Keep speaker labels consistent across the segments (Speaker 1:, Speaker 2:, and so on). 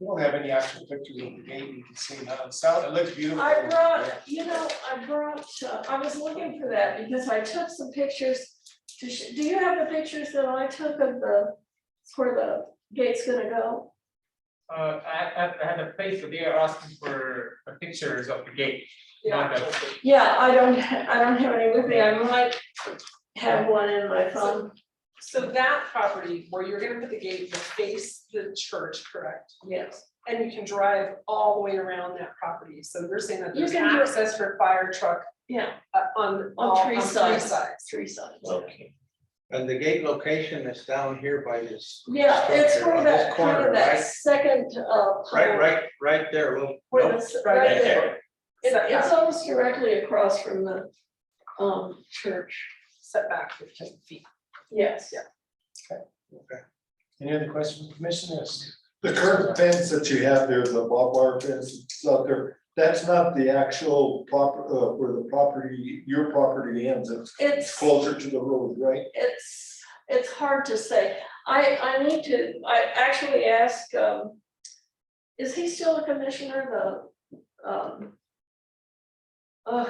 Speaker 1: We don't have any actual pictures of the gate, you can see now, it sound, it looks beautiful.
Speaker 2: I brought, you know, I brought, uh, I was looking for that because I took some pictures. to sh- Do you have the pictures that I took of the, where the gate's gonna go?
Speaker 3: Uh, I, I, I had a place where they are asking for uh, pictures of the gate, not the.
Speaker 2: Yeah, I don't, ha- I don't have any with me. I might have one in my phone.
Speaker 4: So that property where you're gonna put the gate will face the church, correct?
Speaker 2: Yes.
Speaker 4: And you can drive all the way around that property. So we're saying that
Speaker 2: You
Speaker 4: there's
Speaker 2: can do-
Speaker 4: access for fire truck
Speaker 2: Yeah,
Speaker 4: uh, on
Speaker 2: On
Speaker 4: all, on
Speaker 2: three
Speaker 4: three
Speaker 2: sides.
Speaker 4: sides.
Speaker 2: three sides.
Speaker 5: Okay. And the gate location is down here by this.
Speaker 2: Yeah, it's
Speaker 5: structure
Speaker 2: where
Speaker 5: on this
Speaker 2: that, kind
Speaker 5: corner,
Speaker 2: of that
Speaker 5: right?
Speaker 2: second, uh.
Speaker 5: Right,
Speaker 2: pole
Speaker 5: right, right there, a little-
Speaker 2: Where
Speaker 5: nope,
Speaker 2: it's,
Speaker 4: right
Speaker 2: right
Speaker 5: there.
Speaker 2: there. It-
Speaker 4: Setback.
Speaker 2: it's almost directly across from the, um, church.
Speaker 4: Setback fifteen feet.
Speaker 2: Yes.
Speaker 1: Any other questions, commissioners?
Speaker 6: The current fence that you have there, the barbed wire fence that's out there, that's not the actual proper, uh, where the property, your property ends, it's
Speaker 2: It's,
Speaker 6: closer to the road, right?
Speaker 2: it's, it's hard to say. I, I need to, I actually asked, um, is he still a commissioner, the, um, uh,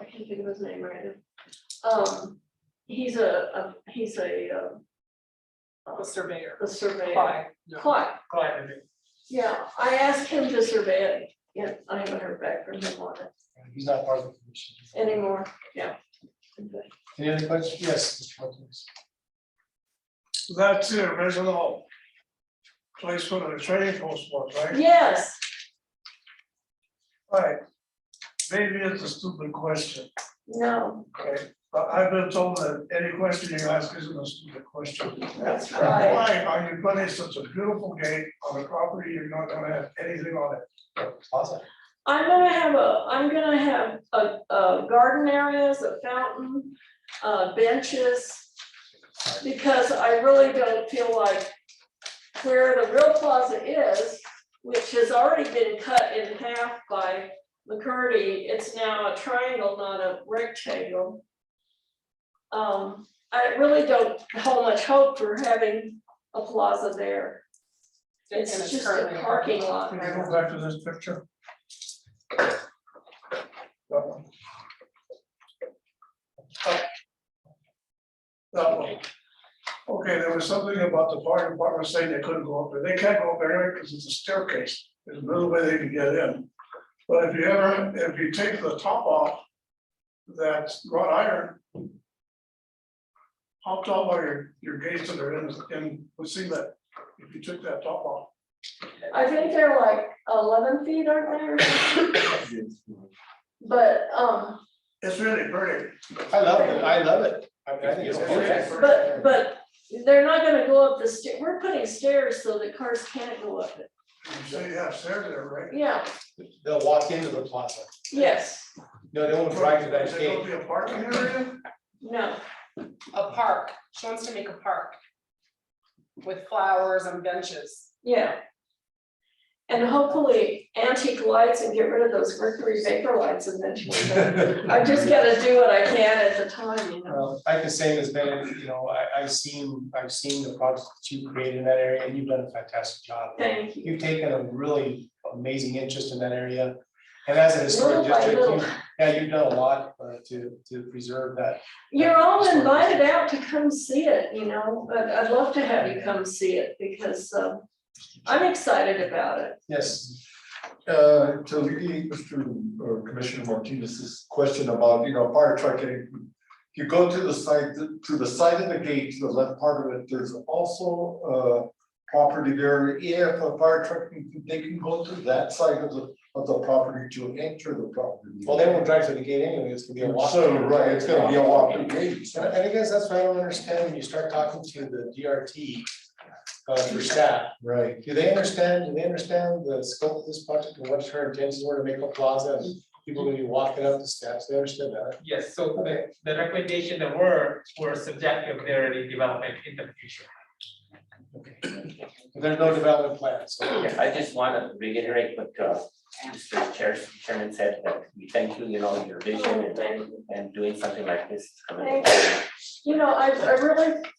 Speaker 2: I can't think of his name right now. Um, he's a, a, he's a, um,
Speaker 4: The surveyor.
Speaker 2: a surveyor.
Speaker 4: Apply.
Speaker 2: Clyde.
Speaker 3: Quite a bit.
Speaker 2: Yeah, I asked him to survey it, yeah, I haven't heard back from him on it
Speaker 1: He's not part of the commission.
Speaker 2: anymore, yeah.
Speaker 1: Any other questions? Yes. Mr. Martinez.
Speaker 7: That's the original place where the trading post was, right?
Speaker 2: Yes,
Speaker 7: Right. Maybe it's a stupid question,
Speaker 2: no,
Speaker 7: okay, but I've been told that any question you ask isn't a stupid question.
Speaker 2: that's right,
Speaker 7: Why are you putting such a beautiful gate on a property you're not gonna have anything on it?
Speaker 1: Plaza.
Speaker 2: I'm gonna have a, I'm gonna have a, a garden areas, a fountain, uh, benches. Because I really don't feel like where the real plaza is, which has already been cut in half by McCurdy, it's now a triangle, not a rectangle. Um, I really don't hold much hope for having a plaza there.
Speaker 4: And
Speaker 2: It's just
Speaker 4: currently
Speaker 2: a parking lot.
Speaker 7: Can you go back to this picture? That one. That one. Okay, there was something about the fire department saying they couldn't go up there. They can't go up there because it's a staircase. There's no way they can get in. But if you ever, if you take the top off, that's wrought iron. How tall are your, your gates that are in, in, let's see that, if you took that top off?
Speaker 2: I think they're like eleven feet, aren't they? or something? But, um,
Speaker 7: It's really pretty.
Speaker 1: I love it, I love it. I mean, I think it's beautiful.
Speaker 2: but, but they're not gonna go up the stair, we're putting stairs so that cars can't go up it.
Speaker 7: So you have stairs there, right?
Speaker 2: Yeah,
Speaker 1: They'll walk into the plaza.
Speaker 2: yes,
Speaker 1: No, they won't drive to
Speaker 7: Is
Speaker 1: that
Speaker 7: there gonna
Speaker 1: gate.
Speaker 7: be a parking area?
Speaker 2: no,
Speaker 4: A park. She wants to make a park with flowers and benches.
Speaker 2: yeah. And hopefully antique lights and get rid of those mercury vapor lights eventually. but I just gotta do what I can at the time, you know.
Speaker 1: Well, I can say this, Ben, you know, I, I've seen, I've seen the projects that you created in that area, and you've done a fantastic job.
Speaker 2: Thank you.
Speaker 1: You've taken a really amazing interest in that area, and as a
Speaker 2: Little
Speaker 1: historic
Speaker 2: by
Speaker 1: district,
Speaker 2: little.
Speaker 1: you, yeah, you've done a lot uh, to, to preserve that.
Speaker 2: You're all invited out to come see it, you know, but I'd love to have you come see it because um, I'm excited about it.
Speaker 1: Yes,
Speaker 6: Uh, to alleviate Mr. or Commissioner Martinez's question about, you know, fire truck getting. You go to the side, to the side of the gate, to the left part of it, there's also uh property there. If a fire truck, they can go to that side of the, of the property to enter the property.
Speaker 1: well, they won't drive to the gate anyway, it's gonna be a walk.
Speaker 6: So, right, it's gonna be a walk through gate.
Speaker 1: And I- and I guess that's what I don't understand, when you start talking to the DRT, uh, for staff,
Speaker 6: Right.
Speaker 1: do they understand, do they understand the scope of this project and what her intentions were to make a plaza? and People gonna be walking up the steps, they understand that,
Speaker 3: Yes, so the, the recommendation that were, were subjective, there any development in the future.
Speaker 1: But there's no development plan, so.
Speaker 8: Yeah, I just wanna reiterate what uh Mr. Chair- Chairman said, that we thank you, you know, your vision
Speaker 2: Oh,
Speaker 8: and
Speaker 2: thank you.
Speaker 8: and doing something like this. is commendable.
Speaker 2: Thank You You know, I, I really